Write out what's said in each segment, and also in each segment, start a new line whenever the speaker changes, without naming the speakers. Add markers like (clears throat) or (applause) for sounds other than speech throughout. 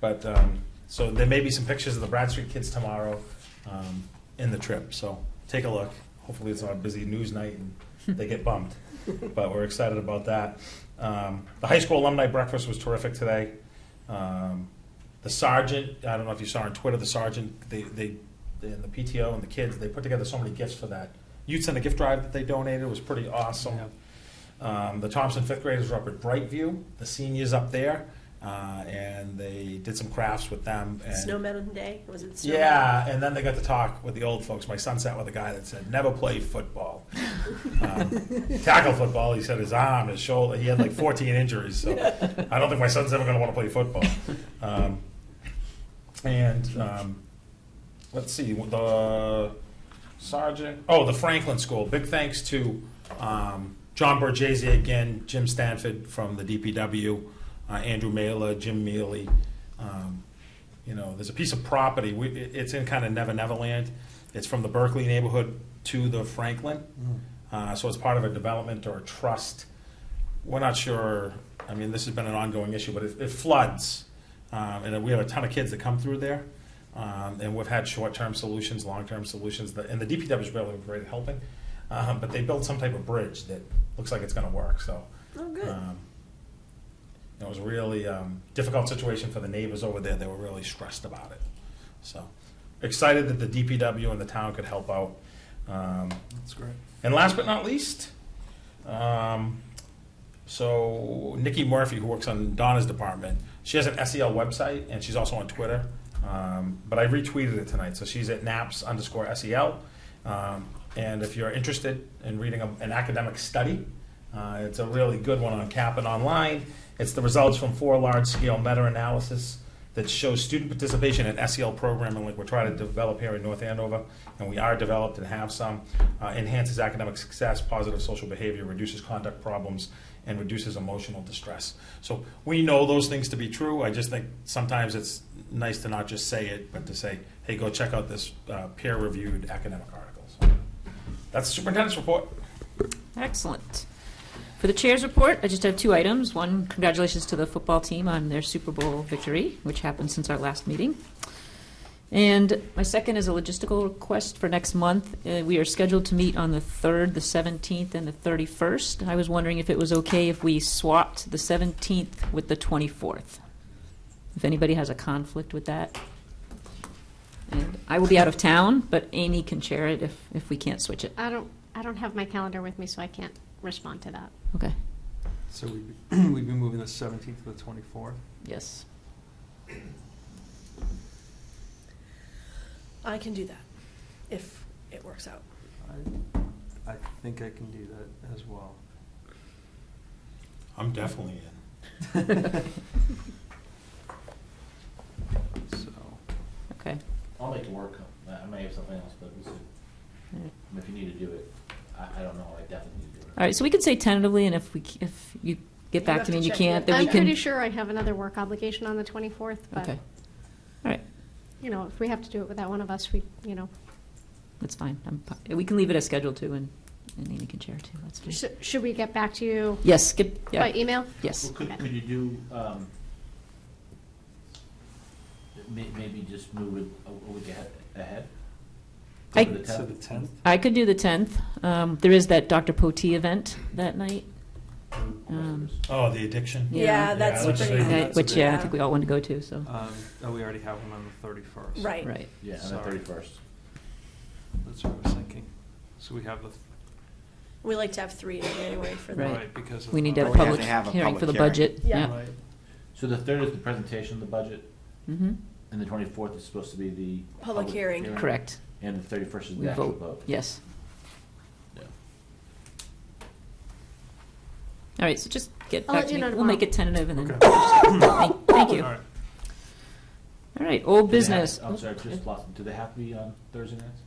But um, so there may be some pictures of the Brad Street kids tomorrow um, in the trip. So take a look. Hopefully, it's not a busy news night and they get bumped. but we're excited about that. Um, the high school alumni breakfast was terrific today. Um, the sergeant, I don't know if you saw on Twitter, the sergeant, they, they, and the PTO and the kids, they put together so many gifts for that. Youth Center gift drive that they donated was pretty awesome. Um, the Thompson fifth graders were up at Brightview, the seniors up there, uh, and they did some crafts with them. And
Snow Mountain Day, was it Snow Mountain?
yeah, and then they got to talk with the old folks. My son sat with a guy that said, "Never play football, um, tackle football." He said his arm, his shoulder. He had like 14 injuries, so I don't think my son's ever going to want to play football. Um, and um, let's see the sergeant. Oh, the Franklin School. Big thanks to um, John Borgese again, Jim Stanford from the DPW, uh, Andrew Mailer, Jim Mealy. Um, you know, there's a piece of property. We, it- it's in kind of Never Never Land. It's from the Berkeley neighborhood to the Franklin. Uh, so it's part of a development or a trust. We're not sure. I mean, this has been an ongoing issue, but it, it floods, um, and we have a ton of kids that come through there. Um, and we've had short-term solutions, long-term solutions, The- and the DPW has really been great at helping. Um, but they built some type of bridge that looks like it's going to work. So
Oh, good.
um, it was a really um, difficult situation for the neighbors over there. They were really stressed about it. So excited that the DPW and the town could help out. Um,
That's great.
and last but not least, um, so Nikki Murphy, who works on Donna's department, she has an SEL website and she's also on Twitter. Um, but I retweeted it tonight, so she's at naps underscore SEL. Um, and if you're interested in reading a, an academic study, uh, it's a really good one on Kaplan Online. It's the results from four large-scale meta-analysis that shows student participation in SEL programming, like we're trying to develop here in North Andover, and we are developed and have some, uh, enhances academic success, positive social behavior, reduces conduct problems, and reduces emotional distress. So we know those things to be true. I just think sometimes it's nice to not just say it, but to say, hey, go check out this uh, peer-reviewed academic article. So That's the superintendent's report.
Excellent. For the chair's report, I just have two items. One, congratulations to the football team on their Super Bowl victory, which happened since our last meeting. And my second is a logistical request for next month. Uh, We are scheduled to meet on the 3rd, the 17th, and the 31st. I was wondering if it was okay if we swapped the 17th with the 24th. If anybody has a conflict with that. And I will be out of town, but Amy can chair it if, if we can't switch it.
I don't, I don't have my calendar with me, so I can't respond to that.
Okay.
So we'd be, (clears throat) we'd be moving the seventeenth to the twenty-fourth.
Yes.
I can do that, if it works out.
I, I think I can do that as well.
I'm definitely in.
So,
Okay.
I'll make it work. I I may have something else, but we'll see. If you need to do it, I, I don't know. I definitely need to do it.
All right, so we can say tentatively, and if we, c- if you get back
have
to me
to
and you
check
can't,
with-
then we
I'm
can.
pretty sure I have another work obligation on the 24th, but,
Okay. All right,
you know, if we have to do it without one of us, we, you know.
that's fine. I'm, fi- we can leave it as scheduled too, and, and Amy can share too, that's
Sh-
fine.
Should we get back to you
Yes, get,
by
yeah,
email?
yes.
Well, could, could you do, um, may, maybe just move it a, a week ahead, ahead?
I-
To the
so the
tenth?
tenth,
I could do the tenth. Um, there is that Dr. Potee event that night, Um,
Oh, the addiction.
Yeah.
Yeah, that's
Yeah, let's
pretty.
say-
that-
that's
which,
a
yeah, I
big-
think we all want to go to, so,
um, oh, we already have one on the thirty-first.
Right.
right.
Yeah, on the
Sorry.
thirty-first.
That's what I was thinking. So we have the,
We like to have three in January for
Right.
that.
right, because of.
We need to
the-
have a
Well, we
public
have to have a
hearing for the
public hearing.
budget,
Yeah.
yeah.
Right.
So the third is the presentation of the budget,
Mm-hmm,
and the twenty-fourth is supposed to be the.
Public hearing.
correct.
And the thirty-first is
We
the actual
vote,
vote.
yes.
Yeah.
All right, so just get
I'll
back
let
to
you
me.
know
We'll make
tomorrow.
it tentative and then.
Okay.
Thank- Thank you.
All right.
All right, old
Do they have-
business.
I'm sorry, just lost, do they have to be on Thursday nights?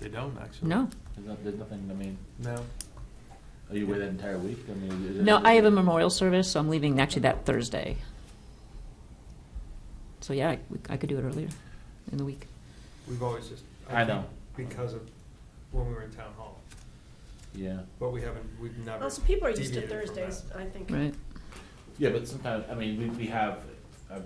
They don't, actually.
No,
There's no, there's nothing, I mean,
No.
are you away that entire week? I mean, is it-
no, I have a memorial service, so I'm leaving actually that Thursday. So yeah, I, we- I could do it earlier in the week.
We've always just.
I know.
think Because of when we were in town hall,
Yeah.
but we haven't, we've never.
Also, people are used to
deviated from
Thursdays,
that.
I think.
Right.
Yeah, but sometimes, I mean, we, we have, uh,